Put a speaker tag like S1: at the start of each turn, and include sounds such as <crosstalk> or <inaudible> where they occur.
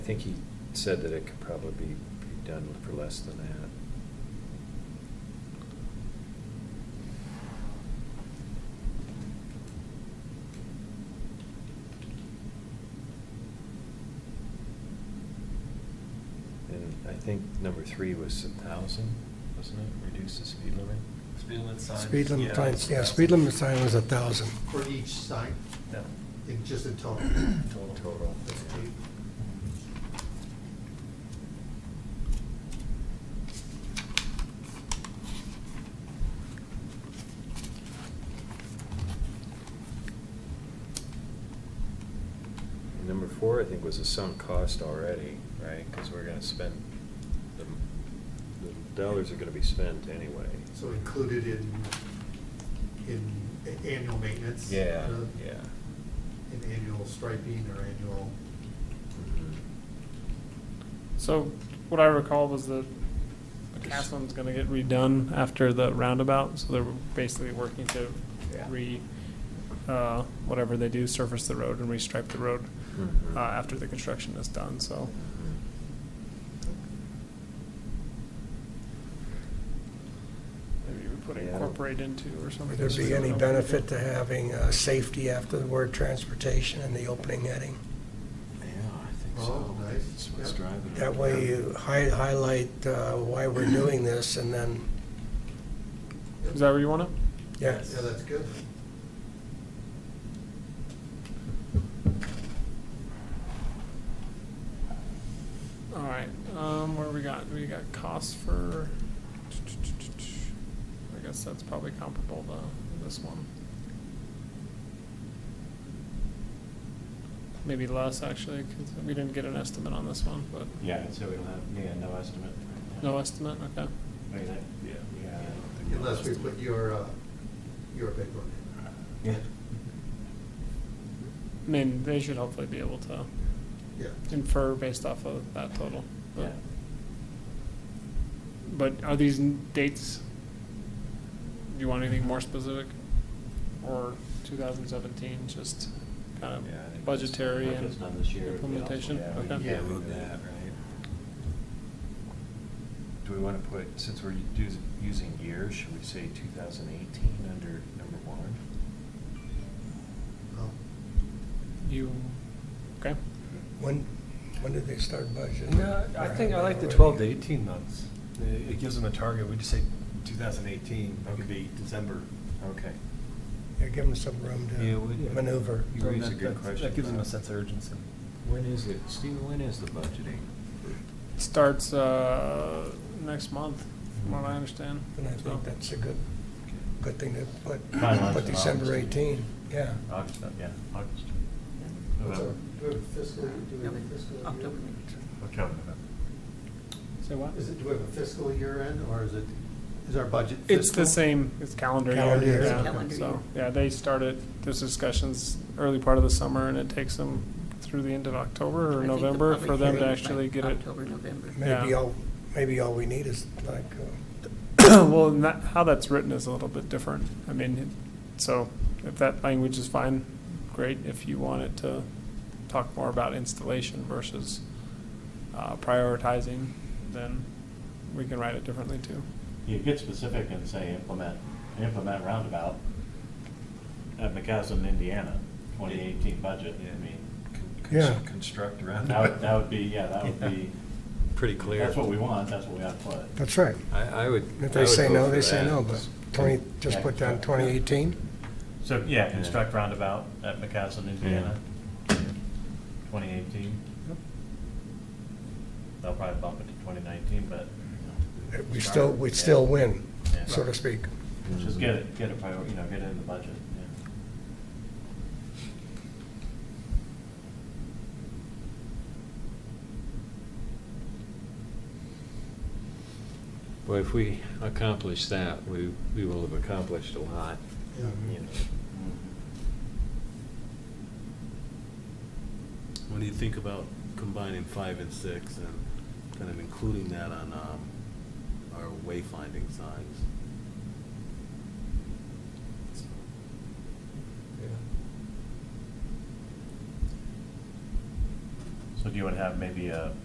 S1: I think he said that it could probably be be done for less than that. And I think number three was a thousand, wasn't it? Reduce the speed limit?
S2: Speed limit signs.
S3: Speed
S2: yeah,
S3: limit signs, yeah,
S2: that's-
S3: speed limit sign was a thousand.
S4: For each sign,
S2: No,
S4: in just in total?
S2: Total.
S1: Total. And Number four, I think, was a sunk cost already, right? Because we're gonna spend, the the dollars are gonna be spent anyway.
S4: So included in, in a- annual maintenance?
S1: Yeah,
S4: uh,
S1: yeah.
S4: In annual striping or annual,
S5: Mm-hmm. So what I recall was that the Castleman's gonna get redone after the roundabout, so they're basically working to
S4: Yeah.
S5: re, uh, whatever they do, surface the road and restripe the road,
S1: Mhm.
S5: uh, after the construction is done, so. Maybe we put
S1: Yeah.
S5: incorporate into or something.
S3: Would there
S5: so we
S3: be
S5: don't
S3: any
S5: know.
S3: benefit to having uh, safety after the word transportation in the opening heading?
S1: Yeah, I think
S4: so. Oh, nice.
S1: That's what's
S4: Yep.
S1: driving it.
S3: That way you hi- highlight uh, why we're doing this and then,
S5: Is that where you want it?
S3: yeah.
S4: yeah, that's good.
S5: All right, um, where we got, we got costs for, I guess that's probably comparable to this one. Maybe less, actually, because we didn't get an estimate on this one, but.
S2: Yeah, so we don't have, yeah, no estimate. right now.
S5: No estimate, okay.
S2: Wait, that- Yeah. yeah, I don't think no
S4: Unless we
S2: estimate.
S4: put your, uh, your big one
S2: Yeah.
S5: I mean, they should hopefully be able to
S4: in, yeah.
S5: infer based off of that total. but-
S2: Yeah.
S5: But are these n- dates, do you want anything more specific? Or 2017, just kind
S1: Yeah, I think
S5: of
S1: just-
S5: budgetary
S2: If
S5: and
S2: it's done this year. it'd be
S5: implementation?
S2: awesome.
S5: Okay.
S1: Yeah,
S4: Yeah.
S1: we did that, right? Do we want to put, since we're us- using years, should we say 2018 under number one?
S4: Oh,
S5: You, okay,
S3: When, when did they start budgeting?
S6: No, I think I like the twelve to eighteen months. It- It gives them a target, we just say two thousand eighteen, it could be December.
S1: Okay.
S3: Yeah, give them some room
S6: Yeah, we-
S3: to maneuver.
S1: You raise
S6: That-
S1: a good
S6: that's-
S1: question,
S6: That gives them a
S1: Bob.
S6: sense of urgency.
S1: When is it, Stephen, when is the budgeting?
S5: starts uh, next month, from what I understand.
S3: And I
S5: so.
S3: think that's a good, good thing to put,
S2: Finalize
S3: put
S2: in
S3: December
S2: August.
S3: eighteen, yeah.
S2: August, yeah, August.
S4: what's our-
S2: November.
S4: Do we have a fiscal, do we have a fiscal year?
S7: October.
S2: Okay, November.
S5: Say what?
S4: Is it, do we have a fiscal year end, or is it, is our budget fiscal?
S5: It's the same, it's calendar
S3: Calendar
S5: year,
S3: year.
S5: yeah,
S7: Calendar year.
S5: so, yeah, they started those discussions early part of the summer, and it takes them through the end of
S7: I
S5: October or
S7: think the
S5: November
S7: public
S5: for them to
S7: hearing
S5: actually
S7: by
S5: get it.
S7: October, November.
S3: Maybe
S5: Yeah.
S3: all, maybe all we need is like, uh,
S5: <coughs> Well, and that, how that's written is a little bit different, I mean, it- so, if that language is fine, great, if you want it to talk more about installation versus uh, prioritizing, then we can write it differently too.
S2: You get specific and say implement, implement roundabout at McCaslin, Indiana, twenty eighteen budget, I mean,
S1: Con- cons-
S3: Yeah.
S1: Construct around.
S2: that would, that would be, yeah, that would be,
S1: Pretty clear.
S2: that's what we want, that's what we ought to put.
S3: that's right.
S1: I, I would.
S3: If
S1: I
S3: they
S1: would
S3: say
S1: vote
S3: no,
S1: for
S3: they say
S1: that.
S3: no, but twenty, just put down twenty eighteen?
S2: So, yeah, construct roundabout at McCaslin, Indiana, twenty eighteen. They'll probably bump it to twenty nineteen, but
S3: We still, we still win,
S2: Yeah.
S3: so to speak.
S2: just
S1: Mm-hmm.
S2: get it, get a priority, you know, get it in the budget, yeah.
S1: Well, if we accomplish that, we, we will have accomplished a lot.
S4: Yeah.
S1: you know.
S2: Mm-hmm.
S8: When you think about combining five and six and kind of including that on um, our wayfinding signs.
S2: So do you want to have maybe a